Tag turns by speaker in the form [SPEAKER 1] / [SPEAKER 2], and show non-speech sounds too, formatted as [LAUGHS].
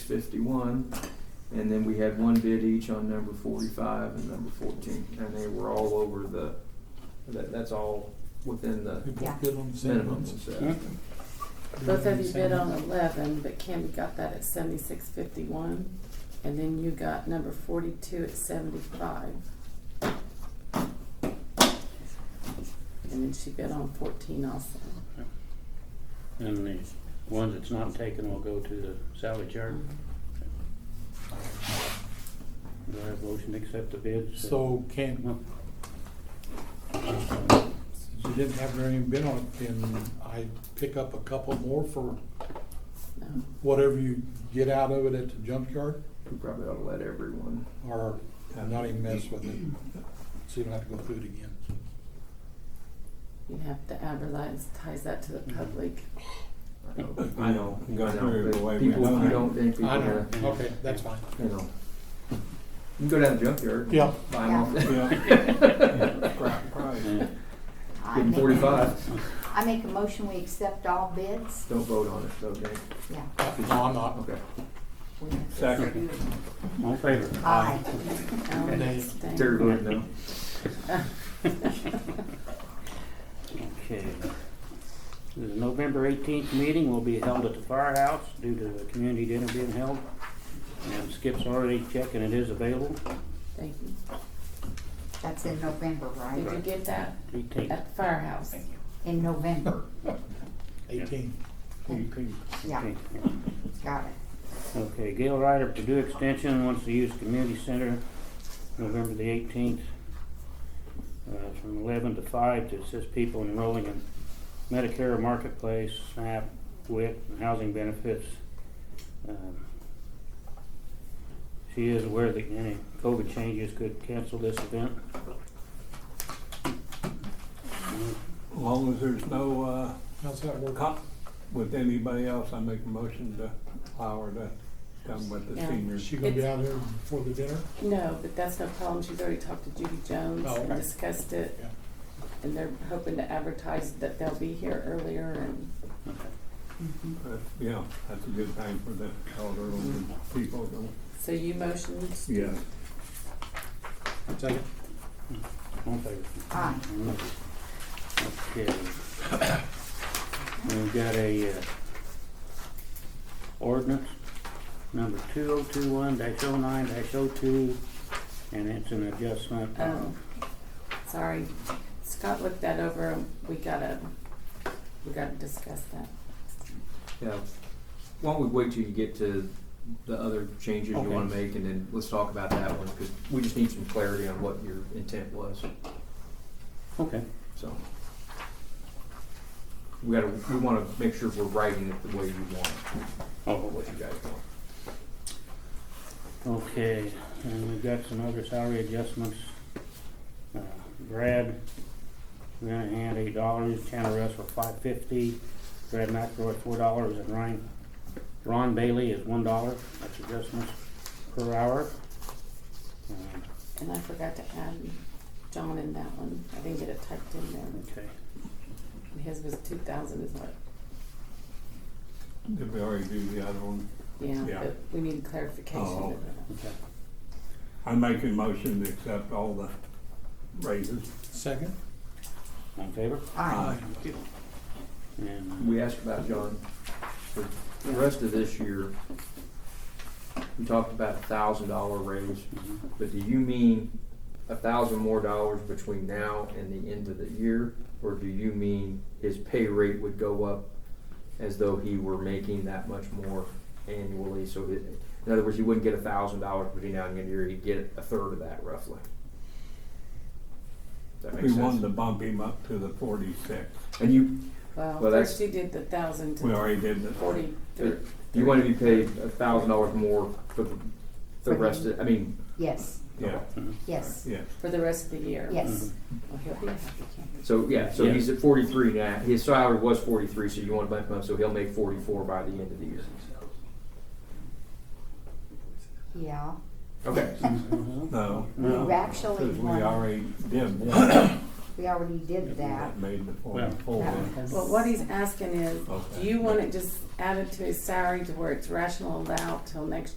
[SPEAKER 1] six fifty-one. And then we had one bid each on number forty-five and number fourteen, and they were all over the, that, that's all within the
[SPEAKER 2] We both
[SPEAKER 3] Yeah.
[SPEAKER 2] bid on the same
[SPEAKER 1] minimum.
[SPEAKER 2] ones.
[SPEAKER 4] Both of you bid on eleven, but Kim got that at seventy-six fifty-one, and then you got number forty-two at seventy-five. And then she bid on fourteen also.
[SPEAKER 5] And the one that's not taken will go to the salvage yard.
[SPEAKER 3] Mm-hmm.
[SPEAKER 5] Do I have a motion to accept the bids?
[SPEAKER 2] So can,
[SPEAKER 5] No.
[SPEAKER 2] since you didn't have very many bid on it, can I pick up a couple more for
[SPEAKER 4] No.
[SPEAKER 2] whatever you get out of it at the junkyard?
[SPEAKER 1] We probably ought to let everyone,
[SPEAKER 2] Or not even mess with it, so you don't have to go through it again?
[SPEAKER 4] You have to advertise, ties that to the
[SPEAKER 2] Mm-hmm.
[SPEAKER 4] public.
[SPEAKER 1] I know, I know, I
[SPEAKER 6] Go
[SPEAKER 1] know,
[SPEAKER 6] through the
[SPEAKER 1] but
[SPEAKER 6] way we
[SPEAKER 1] people,
[SPEAKER 6] have
[SPEAKER 1] if you
[SPEAKER 6] it.
[SPEAKER 1] don't think people,
[SPEAKER 2] I
[SPEAKER 1] are,
[SPEAKER 2] know, okay, that's fine.
[SPEAKER 1] you know. You can go down to the junkyard.
[SPEAKER 2] Yeah.
[SPEAKER 1] Buy 'em off there.
[SPEAKER 5] Yeah.
[SPEAKER 3] I
[SPEAKER 1] Give 'em
[SPEAKER 3] make-
[SPEAKER 1] forty-five,
[SPEAKER 3] I make a motion, we accept all bids.
[SPEAKER 1] don't vote on it, though, Dan.
[SPEAKER 3] Yeah.
[SPEAKER 2] Uh, No, I'm not.
[SPEAKER 1] Okay,
[SPEAKER 3] we have to
[SPEAKER 6] Second.
[SPEAKER 3] do it.
[SPEAKER 5] All in favor?
[SPEAKER 3] Aye.
[SPEAKER 4] I'll
[SPEAKER 2] Nay.
[SPEAKER 4] abstain.
[SPEAKER 1] Terry voted no.
[SPEAKER 5] Okay. The November eighteenth meeting will be held at the firehouse due to the community dinner being held. And Skip's already checking it is available,
[SPEAKER 4] [LAUGHS] Thank you.
[SPEAKER 3] That's in November,
[SPEAKER 4] Did you
[SPEAKER 3] right?
[SPEAKER 4] get that
[SPEAKER 5] eighteenth.
[SPEAKER 4] at the firehouse?
[SPEAKER 3] In November,
[SPEAKER 2] Eighteen.
[SPEAKER 3] yeah, got it.
[SPEAKER 5] Okay, Gail Ryder, Purdue Extension wants to use community center November the eighteenth. Uh, from eleven to five to assist people enrolling in Medicare Marketplace, SNAP, WIC, and housing benefits. Um, She is aware that any COVID changes could cancel this event.
[SPEAKER 6] As long as there's no, uh,
[SPEAKER 2] How's that work?
[SPEAKER 6] cop with anybody else, I make a motion to allow her to come with the
[SPEAKER 4] Yeah.
[SPEAKER 2] Is
[SPEAKER 6] seniors.
[SPEAKER 2] she gonna be out here before the dinner?
[SPEAKER 4] No, but that's no problem. She's already talked to Judy Jones
[SPEAKER 2] Oh,
[SPEAKER 4] and
[SPEAKER 2] okay.
[SPEAKER 4] discussed it.
[SPEAKER 2] Yeah.
[SPEAKER 4] And they're hoping to advertise that they'll be here earlier and
[SPEAKER 5] Okay.
[SPEAKER 6] But, Uh, Yeah, that's a good time for the elderly people to.
[SPEAKER 4] so you motioned.
[SPEAKER 6] Yeah.
[SPEAKER 2] Second.
[SPEAKER 5] All in favor?
[SPEAKER 3] Aye.
[SPEAKER 5] Okay. We've got a, uh, ordinance number two oh two one dash oh nine dash oh two, and it's an adjustment of,
[SPEAKER 4] Um, sorry, Scott looked that over. and We gotta, we gotta discuss that.
[SPEAKER 1] Yeah, why don't we wait till you get to the other changes you
[SPEAKER 5] Okay.
[SPEAKER 1] wanna make, and then let's talk about that one, cause we just need some clarity on what your intent was,
[SPEAKER 5] okay,
[SPEAKER 1] so. We gotta, we wanna make sure we're writing it the way you want, it, or
[SPEAKER 5] oh,
[SPEAKER 1] what
[SPEAKER 5] wait.
[SPEAKER 1] you guys want.
[SPEAKER 5] okay, and we've got some other salary adjustments. Uh, Brad, we're gonna hand eight dollars, Tanner Russ for five fifty, Brad McRoy four dollars, and Ryan, Ron Bailey is one dollar, that's adjustments per hour. Um,
[SPEAKER 4] And I forgot to add John in that one. I didn't get it typed in there.
[SPEAKER 5] Okay,
[SPEAKER 4] And his was two thousand is what,
[SPEAKER 6] Did we already do the other one?
[SPEAKER 4] yeah,
[SPEAKER 6] Yeah.
[SPEAKER 4] but we need clarification.
[SPEAKER 6] Oh,
[SPEAKER 4] of that.
[SPEAKER 5] okay.
[SPEAKER 6] I make a motion to accept all the raises. Uh,
[SPEAKER 2] Second?
[SPEAKER 5] All in favor?
[SPEAKER 3] Aye,
[SPEAKER 5] And
[SPEAKER 1] We asked about John, for the rest of this year, we talked about a thousand dollar raise,
[SPEAKER 5] Mhm.
[SPEAKER 1] but do you mean a thousand more dollars between now and the end of the year? Or do you mean his pay rate would go up as though he were making that much more annually? So it, in other words, he wouldn't get a thousand dollars between now and the end of the year, he'd get a third of that roughly. Does that make
[SPEAKER 6] We wanted
[SPEAKER 1] sense?
[SPEAKER 6] to bump him up to the forty-six.
[SPEAKER 1] And you,
[SPEAKER 4] Well,
[SPEAKER 1] Well,
[SPEAKER 4] first
[SPEAKER 1] that's-
[SPEAKER 4] you did the thousand
[SPEAKER 6] We
[SPEAKER 4] to
[SPEAKER 6] already did the.
[SPEAKER 4] forty-three.
[SPEAKER 1] You want to be paid a thousand dollars more for the, the rest of, I mean,
[SPEAKER 3] yes,
[SPEAKER 6] Yeah,
[SPEAKER 3] yes,
[SPEAKER 6] yeah.
[SPEAKER 4] For the rest of the year?
[SPEAKER 3] yes,
[SPEAKER 4] Well, he'll be happy, can't he?
[SPEAKER 1] so, yeah, so he's at forty-three now, his salary was forty-three, so you want to bump him up, so he'll make forty-four by the end of the year.
[SPEAKER 3] yeah.
[SPEAKER 1] Okay,
[SPEAKER 6] No.
[SPEAKER 3] We actually
[SPEAKER 6] Because we
[SPEAKER 3] wanna-
[SPEAKER 6] already did one
[SPEAKER 3] we already did that.
[SPEAKER 6] Made the
[SPEAKER 5] Well,
[SPEAKER 6] forty-four.
[SPEAKER 4] Well, what he's asking is, do
[SPEAKER 6] Okay.
[SPEAKER 4] you want it just added to his salary to where it's rational allowed till next